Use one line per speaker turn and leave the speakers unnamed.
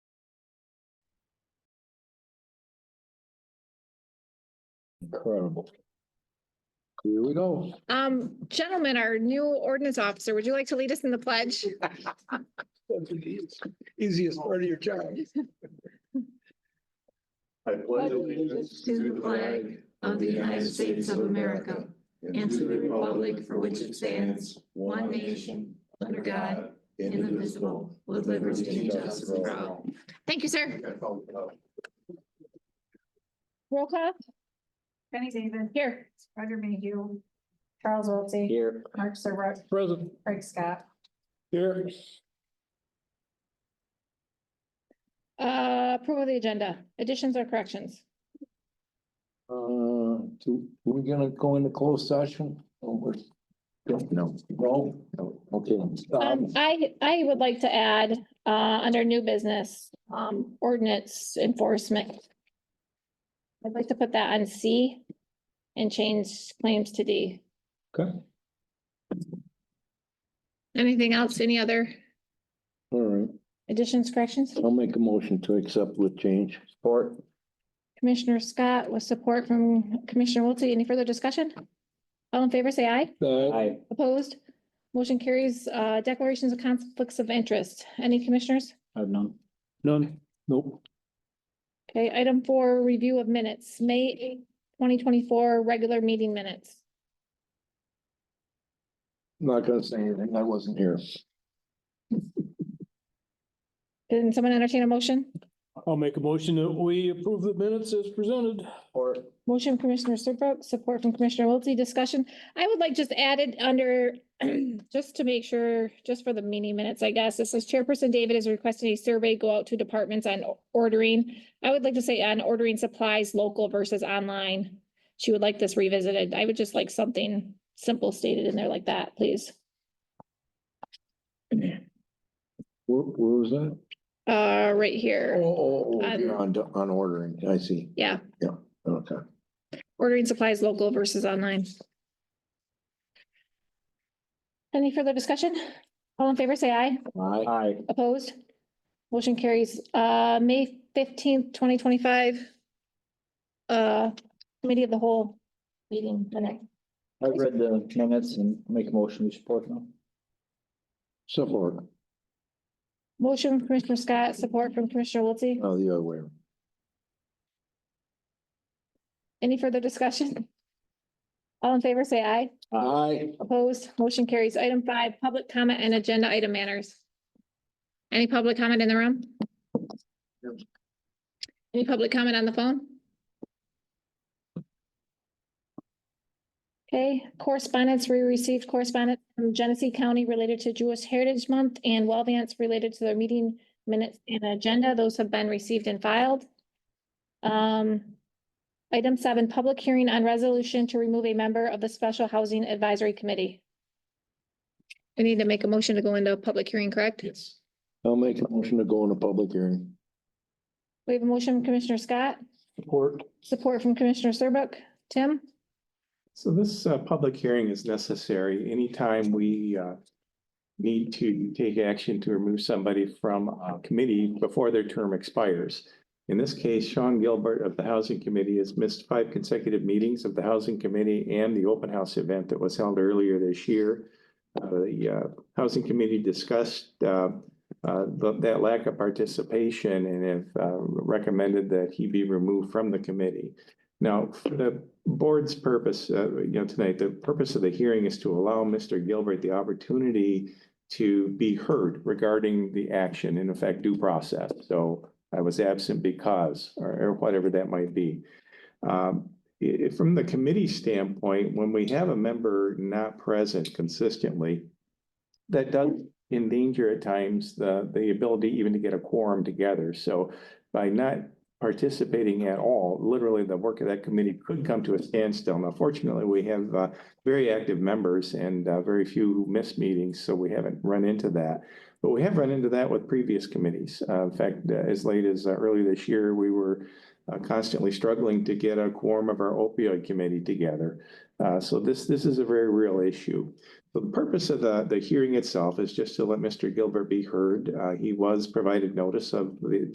Incredible. Here we go.
Um, gentlemen, our new ordinance officer, would you like to lead us in the pledge?
That's the Easiest part of your job.
I pledge allegiance to the flag of the United States of America and to the republic for which it stands, one nation, under God, indivisible, with liberty and justice for all.
Thank you, sir. Roll call?
Jenny David,
Here.
Roger Mayhew, Charles Wiltie,
Here.
Mark Serbrook,
Present.
Craig Scott.
Here.
Uh, approval of the agenda, additions or corrections?
Uh, do, we gonna go into closed session? Oh, we're- No. No? No. Okay.
Um,
Um,
I, I would like to add, uh, under new business, um, ordinance enforcement. I'd like to put that on C and change claims to D.
Okay.
Anything else? Any other
All right,
additions, corrections?
I'll make a motion to accept with change. Support.
Commissioner Scott with support from Commissioner Wiltie. Any further discussion? All in favor, say aye.
Aye.
Opposed? Motion carries, uh, declarations of conflicts of interest. Any commissioners?
I've none. None. Nope.
Okay, item four, review of minutes, May eighth, twenty twenty-four, regular meeting minutes.
Not gonna say anything. I wasn't here.
Can someone entertain a motion?
I'll make a motion that we approve the minutes as presented.
Or.
Motion Commissioner Serbrook, support from Commissioner Wiltie, discussion. I would like just added under, just to make sure, just for the meeting minutes, I guess, this is Chairperson David is requesting a survey go out to departments on ordering. I would like to say on ordering supplies local versus online. She would like this revisited. I would just like something simple stated in there like that, please.
Where, where was that?
Uh, right here.
Oh, oh, oh,
Um,
you're on, on ordering, I see,
Yeah,
okay.
ordering supplies local versus online. Any further discussion? All in favor, say aye.
Aye. Aye.
Opposed? Motion carries. Uh, May fifteenth, twenty twenty-five. Uh, committee of the whole meeting, the next.
I've read the minutes and make a motion to support them.
Support,
Motion from Commissioner Scott, support from Commissioner Wiltie.
oh, the other way.
Any further discussion? All in favor, say aye.
Aye.
Opposed, motion carries. Item five, public comment and agenda item manners. Any public comment in the room? Any public comment on the phone? Okay, correspondence, we received correspondence from Genesee County related to Jewish Heritage Month and Well Vance related to their meeting minutes and agenda. Those have been received and filed. Um, Item seven, public hearing on resolution to remove a member of the Special Housing Advisory Committee. We need to make a motion to go into a public hearing, correct?
Yes. I'll make a motion to go into public hearing.
We have a motion from Commissioner Scott,
Support.
support from Commissioner Serbuk. Tim?
So this uh, public hearing is necessary anytime we uh, need to take action to remove somebody from a committee before their term expires. In this case, Sean Gilbert of the Housing Committee has missed five consecutive meetings of the Housing Committee and the open house event that was held earlier this year. Uh, The uh, Housing Committee discussed uh, uh, th- that lack of participation and have uh, recommended that he be removed from the committee. Now, for the board's purpose, uh, you know, tonight, the purpose of the hearing is to allow Mr. Gilbert the opportunity to be heard regarding the action, in effect, due process. So I was absent because, or or whatever that might be. Um, i- i- from the committee standpoint, when we have a member not present consistently, that does endanger at times the, the ability even to get a quorum together. So by not participating at all, literally the work of that committee could come to a standstill. Now fortunately, we have uh, very active members and uh, very few who miss meetings, so we haven't run into that. But we have run into that with previous committees. Uh, In fact, uh, as late as uh, early this year, we were uh, constantly struggling to get a quorum of our opioid committee together. Uh, So this, this is a very real issue. The purpose of the, the hearing itself is just to let Mr. Gilbert be heard. Uh, he was provided notice of the